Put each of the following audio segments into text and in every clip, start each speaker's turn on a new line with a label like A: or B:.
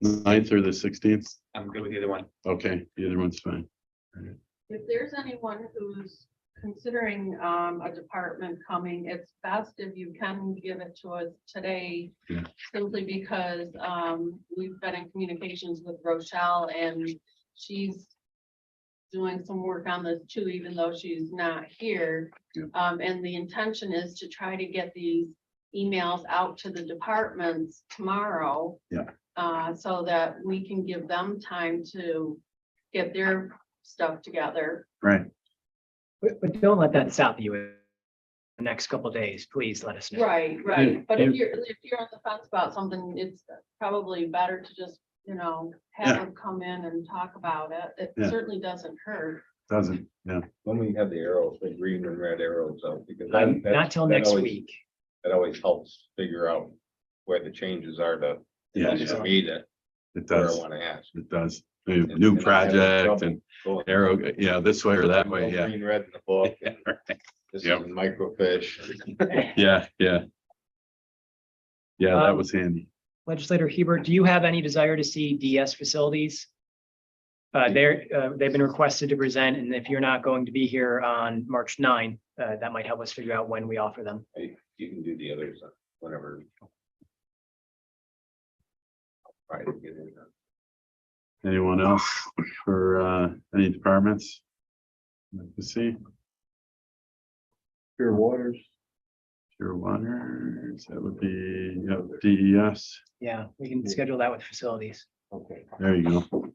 A: Ninth or the sixteenth?
B: I'm good with either one.
A: Okay, either one's fine.
C: If there's anyone who's considering um, a department coming, it's best if you can give it to us today.
A: Yeah.
C: Simply because um, we've been in communications with Rochelle and she's doing some work on this too, even though she's not here.
A: Yeah.
C: Um, And the intention is to try to get these emails out to the departments tomorrow.
A: Yeah.
C: uh, So that we can give them time to get their stuff together.
A: Right.
D: But, but don't let that stop you. in The next couple of days, please let us know.
C: Right,
A: right.
C: But if you're, if you're on the fence about something, it's probably better to just, you know, have
A: Yeah.
C: them come in and talk about it.
A: Yeah.
C: It certainly doesn't hurt.
A: Doesn't, yeah,
E: When we have the arrows, the green and red arrows out, because. that-
D: Um,
E: that-
D: Not till
E: that
D: next
E: always-
D: week.
E: That always helps figure out where the changes are to.
A: yeah,
E: To me that,
A: it
E: where I
A: does,
E: wanna ask.
A: it does. New-
E: And-
A: New
E: and I have
A: project
E: trouble
A: and
E: going-
A: arrow, yeah, this way or that way,
E: Go
A: yeah,
E: Green, red in the book. This is
A: Yep.
E: microfish.
A: yeah, yeah. Yeah, that
D: Um,
A: was handy.
D: Legislator Hebert, do you have any desire to see DS facilities? Uh, they're, uh, they've been requested to present, and if you're not going to be here on March 9, uh, that might help us figure out when we offer them.
E: Hey, You can do the others uh, whenever. Try to get it done.
A: Anyone else for uh any departments? Like to see? Pure waters. Pure waters, that would be, E yeah, DES,
D: Yeah, we can schedule that with facilities.
E: Okay.
A: there you go.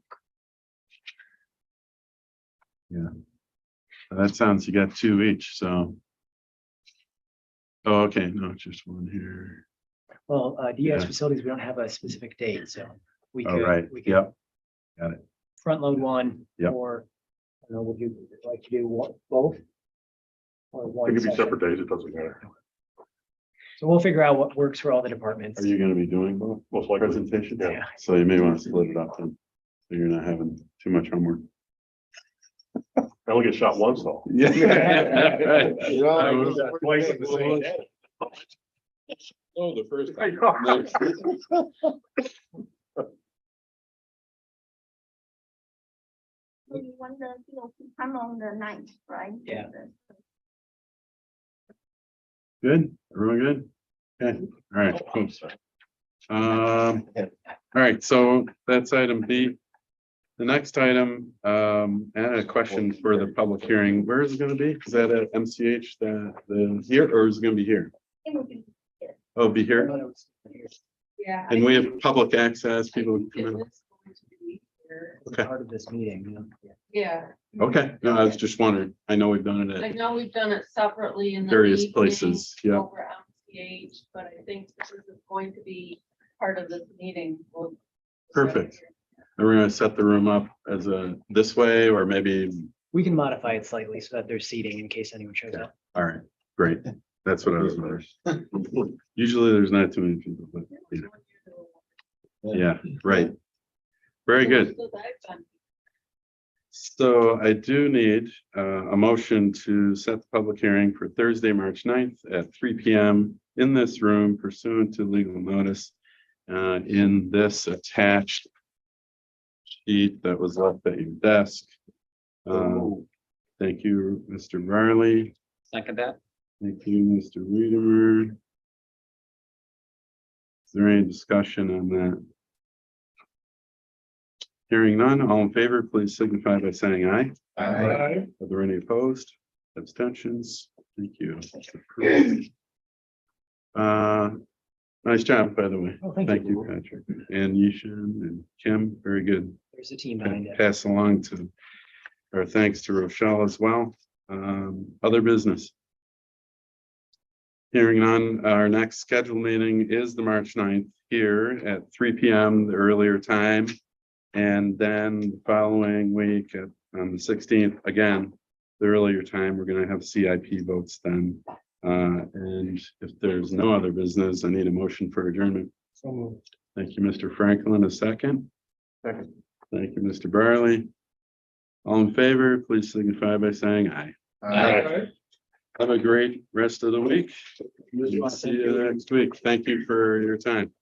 A: Yeah. That sounds, you got two each, so. Oh, okay, no, just one here.
D: Well, uh, DS
A: Yeah.
D: facilities, we don't have a specific date, so we
A: All
D: could.
A: right,
D: we could
A: yep,
D: Front load one.
A: Yep.
D: Or, I don't know, would you like to do one, both? Or one
F: It could be
D: session?
F: separate days, it doesn't matter,
D: So we'll figure out what works for all the departments.
A: are you gonna be doing both
F: most likely.
A: presentations?
F: Yeah.
A: So you may want to split it up then, so you're not having too much homework.
F: I only get shot once though.
A: Yeah. I was- Oh, the first.
G: So you want the POP come on the ninth, right?
D: Yeah.
G: The-
A: Good, everyone good? Okay, all right, cool. Um, all right, so that's item B. The next item, um, I had a question for the public hearing. Where is it gonna be? Is that at MCH, the, the, here, or is it gonna be here?
G: It would be,
A: Oh, it'll be here,
C: Yeah.
A: and we have public access, people can come in. Okay.
D: Part of this meeting, you know?
C: Yeah,
A: Okay, no, I was just wondering. I know we've done it
C: I
A: at
C: know we've done it separately in the.
A: various
C: evening
A: places, yeah.
C: Over at MCH, but I think this is going to be part of this meeting. We'll-
A: Perfect. And we're gonna set the room up as a, this way, or maybe,
D: We can modify it slightly so that there's seating in case anyone shows up.
A: all right, great. That's what I was wondering. Usually there's not too many people, but you know, yeah, right. Very good.
C: Places I've been.
A: So I do need uh, a motion to set the public hearing for Thursday, March 9th at three P M in this room pursuant to legal notice uh, in this attached sheet that was left at your desk. Uh, Thank you, Mr. Marley.
B: Second that.
A: Thank you, Mr. Reader. Is there any discussion on that? Hearing none, all in favor, please signify by saying aye. Are there any opposed? Abstentions? Thank you. It's approved. Uh, nice job, by the way.
D: Oh, thank
A: Thank you,
D: you.
A: Patrick, and Yishan and Kim, very good
D: There's a team
A: and
D: behind it.
A: pass along to, our thanks to Rochelle as well. Um, other business. Hearing on, our next scheduled meeting is the March 9th here at three P M, the earlier time. And then the following week, at- on the sixteenth, again, the earlier time, we're gonna have C I P votes then. Uh, and if there's no other business, I need a motion for adjournment. Thank you, Mr. Franklin, a second. Thank you, Mr. Barley. All in favor, please signify by saying aye. Have a great rest of the week. See you next week. Thank you for your time.